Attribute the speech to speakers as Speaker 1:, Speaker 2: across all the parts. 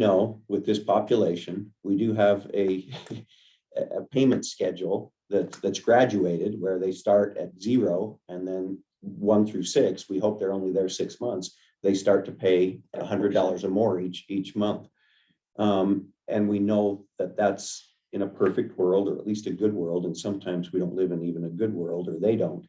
Speaker 1: know with this population, we do have a, a a payment schedule that, that's graduated where they start at zero and then one through six, we hope they're only there six months, they start to pay a hundred dollars or more each, each month. Um, and we know that that's in a perfect world, or at least a good world, and sometimes we don't live in even a good world, or they don't.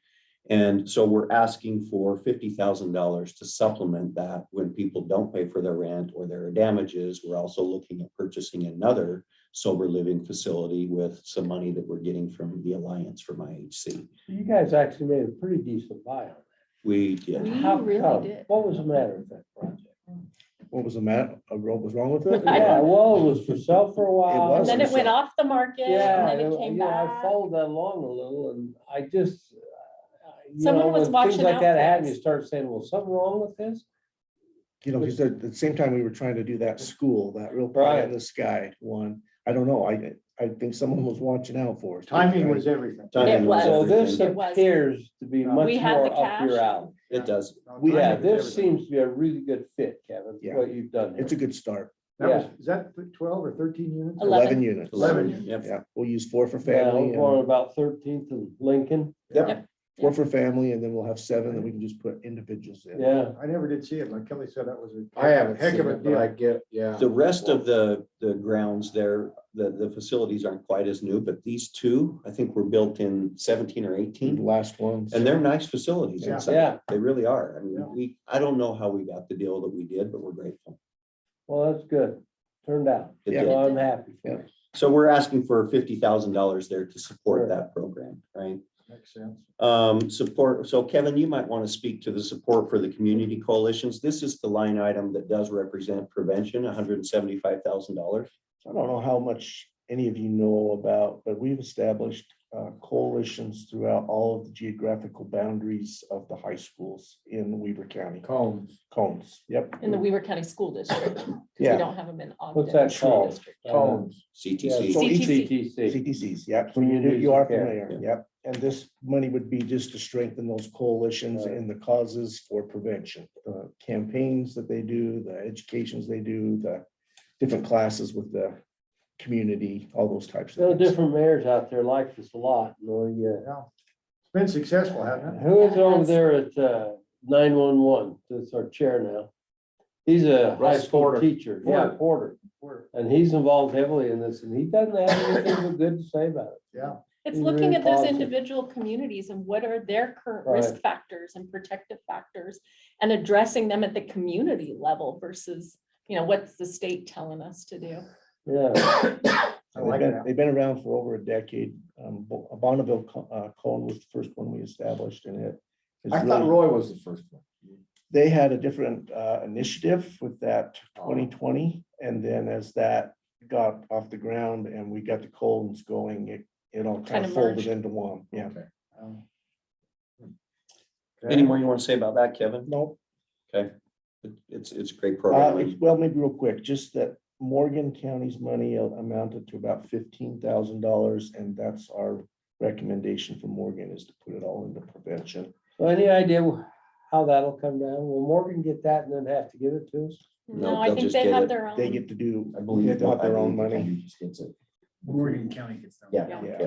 Speaker 1: And so we're asking for fifty thousand dollars to supplement that when people don't pay for their rent or there are damages. We're also looking at purchasing another sober living facility with some money that we're getting from the Alliance from IHC.
Speaker 2: You guys actually made a pretty decent buy on
Speaker 1: We
Speaker 2: that.
Speaker 1: did.
Speaker 3: We
Speaker 2: How
Speaker 3: really
Speaker 2: come?
Speaker 3: did.
Speaker 2: What was the matter with that project?
Speaker 4: What was the matter? What was wrong with it?
Speaker 3: I don't
Speaker 2: Yeah, well, it was for sale for a while.
Speaker 4: was
Speaker 3: And then it went off the market
Speaker 2: Yeah,
Speaker 3: and then
Speaker 2: you
Speaker 3: it came
Speaker 2: know, I
Speaker 3: back.
Speaker 2: followed that along a little and I just. uh, you
Speaker 3: Someone
Speaker 2: know,
Speaker 3: was
Speaker 2: when
Speaker 3: watching
Speaker 2: Things like
Speaker 3: out
Speaker 2: that
Speaker 3: for
Speaker 2: happen,
Speaker 3: us.
Speaker 2: you start saying, well, something wrong with this?
Speaker 4: You know, because at the same time, we were trying to do that school, that real pie
Speaker 2: Right.
Speaker 4: in the sky one. I don't know. I, I think someone was watching out for us.
Speaker 5: Timing was everything.
Speaker 1: Timing
Speaker 3: was.
Speaker 2: So this
Speaker 1: everything.
Speaker 3: It was.
Speaker 2: appears to be much
Speaker 3: We had the
Speaker 2: more up your
Speaker 3: cash.
Speaker 2: alley.
Speaker 1: It does.
Speaker 4: We
Speaker 2: Yeah,
Speaker 4: had
Speaker 5: Timing was
Speaker 2: this
Speaker 5: everything.
Speaker 2: seems to be a really good fit, Kevin,
Speaker 4: Yeah.
Speaker 2: what you've done.
Speaker 4: It's a good start.
Speaker 5: That was, is that twelve or thirteen units?
Speaker 3: Eleven.
Speaker 4: Eleven units.
Speaker 5: Eleven.
Speaker 1: Yep.
Speaker 4: Yeah, we'll use four for family,
Speaker 2: Family,
Speaker 4: and
Speaker 2: one about Thirteenth and Lincoln.
Speaker 4: four for family, and then we'll have seven that we can just put individuals in.
Speaker 2: Yeah,
Speaker 5: I never did see it. Like Kelly said, that was a.
Speaker 6: I haven't
Speaker 5: Heck
Speaker 6: seen
Speaker 5: of a
Speaker 6: it, but I
Speaker 5: deal.
Speaker 6: get, yeah.
Speaker 1: The rest of the, the grounds there, the, the facilities aren't quite as new, but these two, I think were built in seventeen or
Speaker 4: The
Speaker 1: eighteen.
Speaker 4: Last ones.
Speaker 1: And they're nice facilities
Speaker 5: Yeah.
Speaker 1: inside.
Speaker 2: Yeah.
Speaker 1: They really are. I mean,
Speaker 5: Yeah.
Speaker 1: we, I don't know how we got the deal that we did, but we're grateful.
Speaker 2: well, that's good. Turned out.
Speaker 1: It
Speaker 4: Yeah.
Speaker 1: did.
Speaker 2: So I'm happy. for
Speaker 4: Yeah.
Speaker 2: you.
Speaker 1: So we're asking for fifty thousand dollars there to support
Speaker 2: Sure.
Speaker 1: that program, right?
Speaker 5: Makes sense.
Speaker 1: Um, support, so Kevin, you might want to speak to the support for the community coalitions. This is the line item that does represent prevention, hundred and seventy-five thousand dollars.
Speaker 4: I don't know how much any of you know about, but we've established uh, coalitions throughout all of the geographical boundaries of the high schools in Weaver County.
Speaker 6: Combs.
Speaker 4: Cones, yep.
Speaker 3: In the Weaver County School District, because we
Speaker 4: Yeah.
Speaker 3: don't have them in Ogden.
Speaker 2: What's that
Speaker 3: School
Speaker 2: called?
Speaker 3: District.
Speaker 6: Uh, Combs.
Speaker 4: Yeah,
Speaker 1: CTC.
Speaker 4: so each-
Speaker 2: CTC.
Speaker 4: CTCs, yep, so you do, you are
Speaker 1: of
Speaker 2: Communities
Speaker 1: care,
Speaker 4: familiar, yep, and this money would be just to strengthen those coalitions
Speaker 2: Right.
Speaker 4: and the causes for prevention. The campaigns that they do, the educations they do, the different classes with the community, all those types
Speaker 2: There are
Speaker 4: of things.
Speaker 2: different mayors out there like this a lot, you know,
Speaker 5: Yeah. It's been successful, hasn't
Speaker 2: yeah.
Speaker 5: it?
Speaker 2: Who is over there at uh, nine one one, that's our chair now? He's a high
Speaker 6: Russ
Speaker 2: school
Speaker 6: Porter.
Speaker 2: teacher, yeah,
Speaker 5: Porter.
Speaker 2: Porter,
Speaker 5: We're-
Speaker 2: and he's involved heavily in this, and he doesn't have anything but good to say about it.
Speaker 5: Yeah,
Speaker 3: It's
Speaker 2: Be
Speaker 3: looking
Speaker 2: really
Speaker 3: at those
Speaker 2: positive.
Speaker 3: individual communities and what are their current risk factors and protective factors and addressing them at the community level versus, you know, what's the state telling us to do?
Speaker 2: Yeah,
Speaker 5: I
Speaker 4: They've
Speaker 5: like
Speaker 4: been,
Speaker 5: that.
Speaker 4: they've been around for over a decade. Um, Bo- Bonneville Co- uh, Cone was the first one we established and it. is
Speaker 6: I thought
Speaker 4: really-
Speaker 6: Roy was the first one.
Speaker 4: They had a different uh, initiative with that
Speaker 6: Oh.
Speaker 4: twenty twenty. And then as that got off the ground and we got the Colons going, it, it all kind
Speaker 3: Kinda
Speaker 4: of folded
Speaker 3: merged.
Speaker 4: into one. Yeah.
Speaker 6: Okay.
Speaker 5: Um,
Speaker 1: Any more you want to say about that, Kevin?
Speaker 4: No,
Speaker 1: It- It's, it's a great
Speaker 4: uh,
Speaker 1: program.
Speaker 4: it's- well, maybe real quick, just that Morgan County's money amounted to about fifteen thousand dollars. And that's our recommendation for Morgan is to put it all into prevention.
Speaker 2: so any idea how that'll come down? Will Morgan get that and then have to give it to us?
Speaker 1: No,
Speaker 3: No, I
Speaker 1: they'll
Speaker 3: think
Speaker 1: just
Speaker 3: they
Speaker 1: get
Speaker 3: have
Speaker 1: it.
Speaker 3: their own.
Speaker 4: They get to do,
Speaker 6: I
Speaker 4: they
Speaker 6: believe.
Speaker 4: got their own
Speaker 6: I believe
Speaker 4: money.
Speaker 6: he just gets it.
Speaker 5: Morgan County gets them.
Speaker 6: Yeah.
Speaker 3: Yeah.
Speaker 4: Yeah.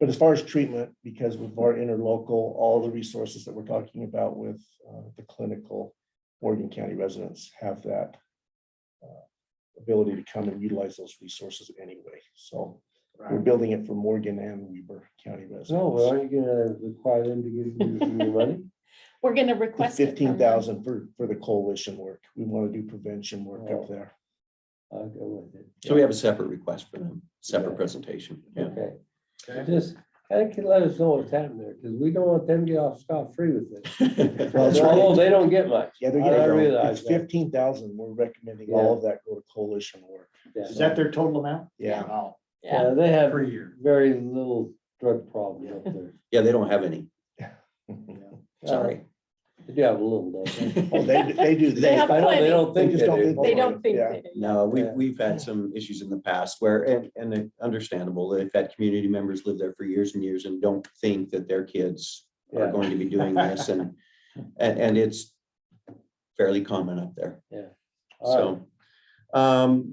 Speaker 4: But as far as treatment, because with our interlocal, all the resources that we're talking about with uh, the clinical, Morgan County residents have that uh, ability to come and utilize those resources anyway. So we're
Speaker 5: Right.
Speaker 4: building it for Morgan and Weber County
Speaker 2: No, Oh, well,
Speaker 4: residents.
Speaker 2: aren't you gonna require them to give you your money?
Speaker 3: We're gonna request. it from them.
Speaker 4: Fifteen thousand for, for the coalition work. We want to do prevention work
Speaker 2: Oh.
Speaker 4: up there.
Speaker 2: I'll go with it.
Speaker 1: So we have a separate request for them, separate
Speaker 2: Yeah.
Speaker 1: presentation. Yeah.
Speaker 2: Okay,
Speaker 5: Okay.
Speaker 2: just, I think you let us know what's happening there, because we don't want them to get off scot free with this.
Speaker 4: Well, that's right.
Speaker 2: Although they don't get much.
Speaker 4: Yeah, they're
Speaker 2: I
Speaker 4: getting,
Speaker 2: realize
Speaker 4: it's
Speaker 2: that.
Speaker 4: fifteen thousand. We're recommending all of that go to coalition work.
Speaker 2: Yeah.
Speaker 5: Is that their total amount?
Speaker 4: Yeah.
Speaker 5: Wow,
Speaker 3: Yeah,
Speaker 2: Yeah, they have
Speaker 5: per year.
Speaker 2: very little drug problem up there.
Speaker 1: Yeah, they don't have any. Sorry.
Speaker 2: Uh, They do have a little, don't they?
Speaker 4: Oh, they, they do.
Speaker 3: They have
Speaker 2: I know, they
Speaker 3: plenty.
Speaker 2: don't
Speaker 4: They
Speaker 2: think
Speaker 4: just don't
Speaker 2: they
Speaker 4: think
Speaker 2: do.
Speaker 3: they don't think
Speaker 4: Yeah.
Speaker 3: they do.
Speaker 1: No, we've,
Speaker 2: Yeah.
Speaker 1: we've had some issues in the past where, and, and it- understandable, they've had community members live there for years and years and don't think that their kids are
Speaker 2: Yeah,
Speaker 1: going to be doing this and, and, and it's fairly common up there.
Speaker 2: Yeah. All
Speaker 1: So, Um,